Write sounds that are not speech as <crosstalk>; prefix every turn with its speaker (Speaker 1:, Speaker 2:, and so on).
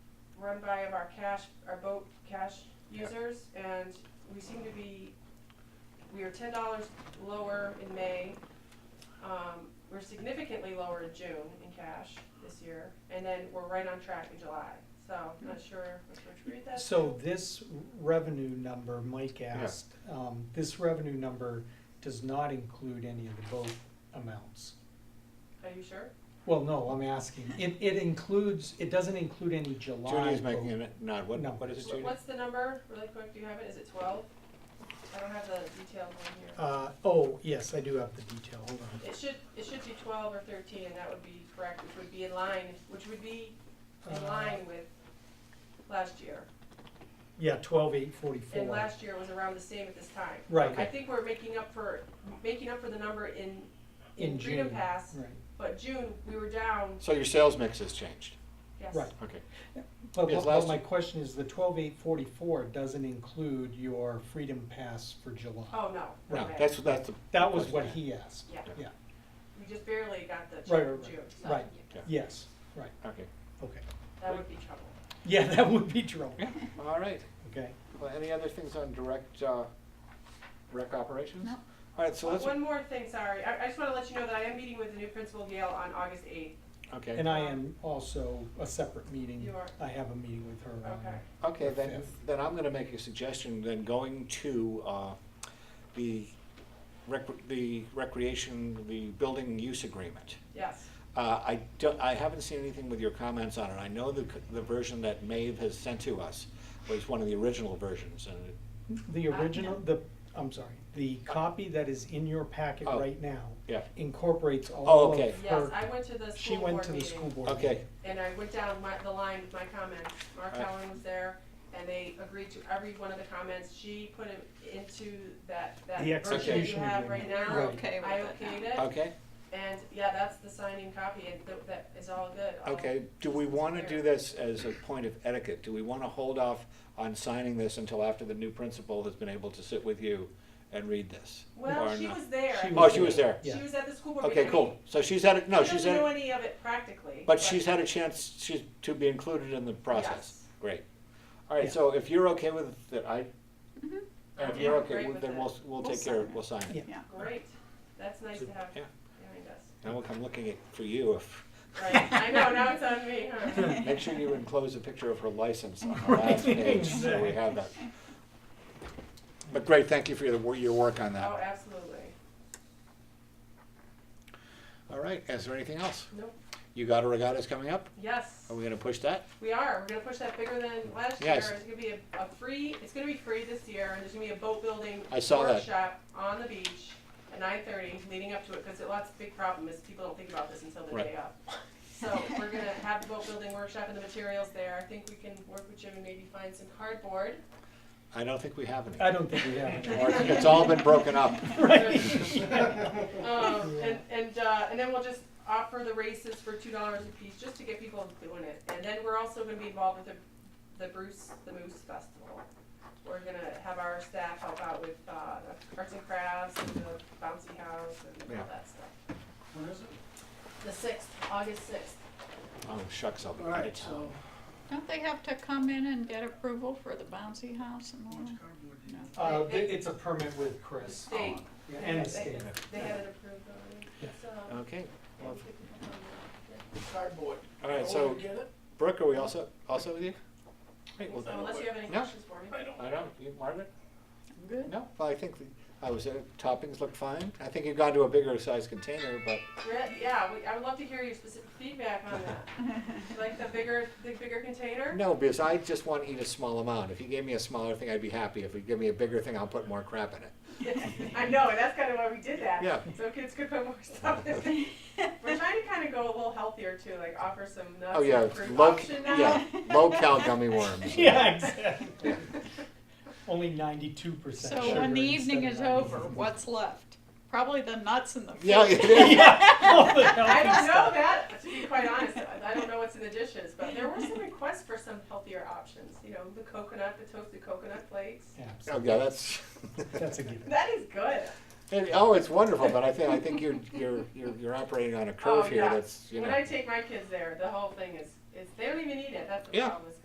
Speaker 1: run by of our cash, our boat cash users, and we seem to be, we are ten dollars lower in May. Um, we're significantly lower in June in cash this year, and then we're right on track in July, so I'm not sure which to attribute that to.
Speaker 2: So this revenue number, Mike asked, um, this revenue number does not include any of the boat amounts.
Speaker 1: Are you sure?
Speaker 2: Well, no, I'm asking, it, it includes, it doesn't include any July.
Speaker 3: Judy is
Speaker 2: boat.
Speaker 3: making a nod, what,
Speaker 2: No.
Speaker 3: what is it,
Speaker 1: Wh-
Speaker 3: Judy?
Speaker 1: What's the number, really quick, do you have it, is it twelve? I don't have the detailed one here.
Speaker 2: Uh, oh, yes, I do have the detail, hold on.
Speaker 1: It should, it should be twelve or thirteen, and that would be correct, which would be in line, which would be in
Speaker 2: Uh,
Speaker 1: line with last year.
Speaker 2: Yeah, twelve eight
Speaker 1: And
Speaker 2: forty-four.
Speaker 1: last year was around the same at this time.
Speaker 2: Right,
Speaker 1: I think we're making up for, making up for the number in, in
Speaker 2: In
Speaker 1: Freedom
Speaker 2: June,
Speaker 1: Pass,
Speaker 2: right,
Speaker 1: but June, we were down,
Speaker 3: So your sales mix has changed,
Speaker 1: yes.
Speaker 2: right.
Speaker 3: okay.
Speaker 2: But,
Speaker 3: Yes,
Speaker 2: but- but
Speaker 3: last-
Speaker 2: my question is, the twelve eight forty-four doesn't include your Freedom Pass for July.
Speaker 1: Oh, no, no
Speaker 3: No,
Speaker 1: way.
Speaker 3: that's, that's the.
Speaker 2: That was what he asked,
Speaker 1: Yeah,
Speaker 2: yeah,
Speaker 1: we just barely got the check
Speaker 2: Right,
Speaker 1: in
Speaker 2: right,
Speaker 1: June,
Speaker 2: right,
Speaker 1: so
Speaker 2: right.
Speaker 3: Yeah.
Speaker 2: yes, right,
Speaker 3: Okay,
Speaker 2: okay.
Speaker 1: that would be trouble.
Speaker 2: Yeah, <laughs> that would be trouble,
Speaker 3: all right.
Speaker 2: okay?
Speaker 3: Well, any other things on direct, uh, rec operations?
Speaker 4: No.
Speaker 3: All right, so let's,
Speaker 1: One more thing, sorry, I, I just wanna let you know that I am meeting with the new principal Gail on August eighth,
Speaker 3: okay,
Speaker 2: And I am also a separate meeting.
Speaker 1: You are.
Speaker 2: I have a meeting with her. on-
Speaker 1: okay?
Speaker 3: okay, then,
Speaker 2: Fifth.
Speaker 3: then I'm gonna make a suggestion, then going to, uh, the rec, the recreation, the building use agreement.
Speaker 1: Yes,
Speaker 3: Uh, I don't, I haven't seen anything with your comments on it. I know the, c- the version that Maeve has sent to us was one of the original versions, and it
Speaker 2: The
Speaker 1: Uh,
Speaker 2: original,
Speaker 4: no.
Speaker 2: the, I'm sorry, the copy that is in your packet
Speaker 3: Oh.
Speaker 2: right now
Speaker 3: Yeah.
Speaker 2: incorporates
Speaker 3: Oh,
Speaker 2: all of
Speaker 3: okay.
Speaker 1: yes,
Speaker 2: her.
Speaker 1: I went to the
Speaker 2: She
Speaker 1: school
Speaker 2: went
Speaker 1: board
Speaker 2: to the school
Speaker 1: meeting,
Speaker 2: board.
Speaker 3: Okay,
Speaker 2: meeting.
Speaker 1: and I went down my, the line with my comments, Mark
Speaker 3: Alright.
Speaker 1: Allen was there, and they agreed to every one of the comments, she put it into that, that
Speaker 2: The
Speaker 1: version that you
Speaker 2: execution
Speaker 1: have right
Speaker 2: agreement.
Speaker 1: now.
Speaker 4: We're
Speaker 2: Right.
Speaker 4: okay
Speaker 1: I
Speaker 4: with it
Speaker 1: okayed
Speaker 4: now.
Speaker 1: it,
Speaker 3: okay,
Speaker 1: and yeah, that's the signing copy, and th- that is all good. all-
Speaker 3: okay. Do we wanna do this as a point of etiquette? Do we wanna hold off on signing this until after the new principal has been able to sit with you and read this?
Speaker 1: Well,
Speaker 3: Or
Speaker 1: she
Speaker 3: not?
Speaker 1: was there.
Speaker 2: She
Speaker 3: Oh, she was there.
Speaker 1: She
Speaker 2: Yeah.
Speaker 1: was at the school board meeting.
Speaker 3: Okay, cool. So she's had, a no, she's
Speaker 1: She doesn't know
Speaker 3: had,
Speaker 1: any of it practically.
Speaker 3: but she's had a chance to, to be included in the process.
Speaker 1: Yes.
Speaker 3: Great. All right,
Speaker 2: Yeah.
Speaker 3: so if you're okay with it, I,
Speaker 4: Mhm.
Speaker 3: and if
Speaker 1: I'm
Speaker 3: you're
Speaker 1: great
Speaker 3: okay,
Speaker 1: with
Speaker 3: with then
Speaker 1: it.
Speaker 3: we'll, we'll
Speaker 4: We'll
Speaker 3: take care,
Speaker 4: sign
Speaker 3: of it.
Speaker 4: it.
Speaker 3: we'll sign it.
Speaker 2: Yeah.
Speaker 1: Great, that's nice to have
Speaker 3: Yeah.
Speaker 1: behind us.
Speaker 3: Now look, I'm looking at, for you, if,
Speaker 1: Right, I know, now it's on me,
Speaker 3: <laughs>
Speaker 1: huh?
Speaker 3: make sure you enclose a picture of her license on the last
Speaker 2: Right,
Speaker 3: page, so we have that. But great, thank you for your, wor- your work on
Speaker 1: Oh,
Speaker 3: that.
Speaker 1: absolutely.
Speaker 3: All right, is there anything else?
Speaker 1: Nope.
Speaker 3: You got a regatta's coming up?
Speaker 1: Yes,
Speaker 3: Are we gonna push that?
Speaker 1: we are. We're gonna push that bigger than last year.
Speaker 3: Yes.
Speaker 1: It's gonna be a, a free, it's gonna be free this year, and there's gonna be a boat building
Speaker 3: I saw that.
Speaker 1: workshop on the beach at nine thirty, leading up to it, because it, lots, big problem is people don't think about this until the
Speaker 3: Right.
Speaker 1: day of. So we're gonna have the boat building workshop and the materials there. I think we can work with Jim and maybe find some cardboard.
Speaker 3: I don't think we have any.
Speaker 2: I don't think we have it.
Speaker 3: <laughs> Or It's all been broken up.
Speaker 2: <laughs> Right, <laughs> Uh, yeah.
Speaker 1: Um, and, and, uh, and then we'll just offer the races for two dollars a piece, just to get people doing it. And then we're also gonna be involved with the, the Bruce, the Moose Festival. We're gonna have our staff help out with, uh, the arts and crafts, and the bouncy house, and
Speaker 3: Yeah.
Speaker 1: all that stuff.
Speaker 5: When is it?
Speaker 1: The sixth, August sixth.
Speaker 3: Oh, shucks, I'll be.
Speaker 5: All right, so,
Speaker 4: <laughs> Don't they have to come in and get approval for the bouncy house and all
Speaker 5: how much
Speaker 4: that?
Speaker 5: cardboard do you
Speaker 4: No.
Speaker 2: Uh, th- it's a permit with Chris
Speaker 1: They,
Speaker 2: yeah, and the
Speaker 1: They-
Speaker 2: state.
Speaker 1: they had it approved already,
Speaker 2: Yeah.
Speaker 1: so.
Speaker 3: Okay, well,
Speaker 5: need? Cardboard.
Speaker 3: all right,
Speaker 5: Go
Speaker 3: so
Speaker 5: and Get it?
Speaker 3: Brooke, are we also, also with you? Great, well
Speaker 1: So
Speaker 3: then-
Speaker 1: Unless you have any
Speaker 3: No.
Speaker 1: questions for me.
Speaker 5: I don't.
Speaker 3: I don't, you, Margaret? <laughs>
Speaker 4: I'm Good.
Speaker 3: No, well, I think, the- I was, uh, toppings looked fine. I think you've gone to a bigger size container, but
Speaker 1: Re- Yeah, we, I would love to hear your specific feedback on that. Like the bigger, the bigger container?
Speaker 3: No, because I just want to eat a small amount. If you gave me a smaller thing, I'd be happy. If you give me a bigger thing, I'll put more crap in it.
Speaker 1: <laughs> I know, and that's kind of why we did that.
Speaker 3: Yeah.
Speaker 1: So kids could put more stuff in. We're trying to kind of go a little healthier too, like offer some nuts
Speaker 3: Oh, yeah,
Speaker 1: and fruit
Speaker 3: low,
Speaker 1: option now.
Speaker 3: yeah, low-cal
Speaker 1: <laughs>
Speaker 3: gummy worms.
Speaker 2: <laughs> Yeah, exactly. Only ninety-two percent
Speaker 4: So when the evening is over, what's left? Probably the nuts and the fruit.
Speaker 3: Yeah, it is.
Speaker 2: <laughs>
Speaker 1: <laughs> I don't know that, to be quite honest. I don't know what's in the dishes, but there were some requests for some healthier options. You know, the coconut, the toasted coconut flakes.
Speaker 3: Oh, yeah, that's. <laughs>
Speaker 2: That's a given.
Speaker 1: That is good.
Speaker 3: And- Oh, it's wonderful, but I think, I think you're, you're, you're, you're operating on a
Speaker 1: Oh,
Speaker 3: curve here
Speaker 1: yeah.
Speaker 3: that's, you know.
Speaker 1: When I take my kids there, the whole thing is, is they don't even eat it. That's the
Speaker 3: Yeah.
Speaker 1: problem. is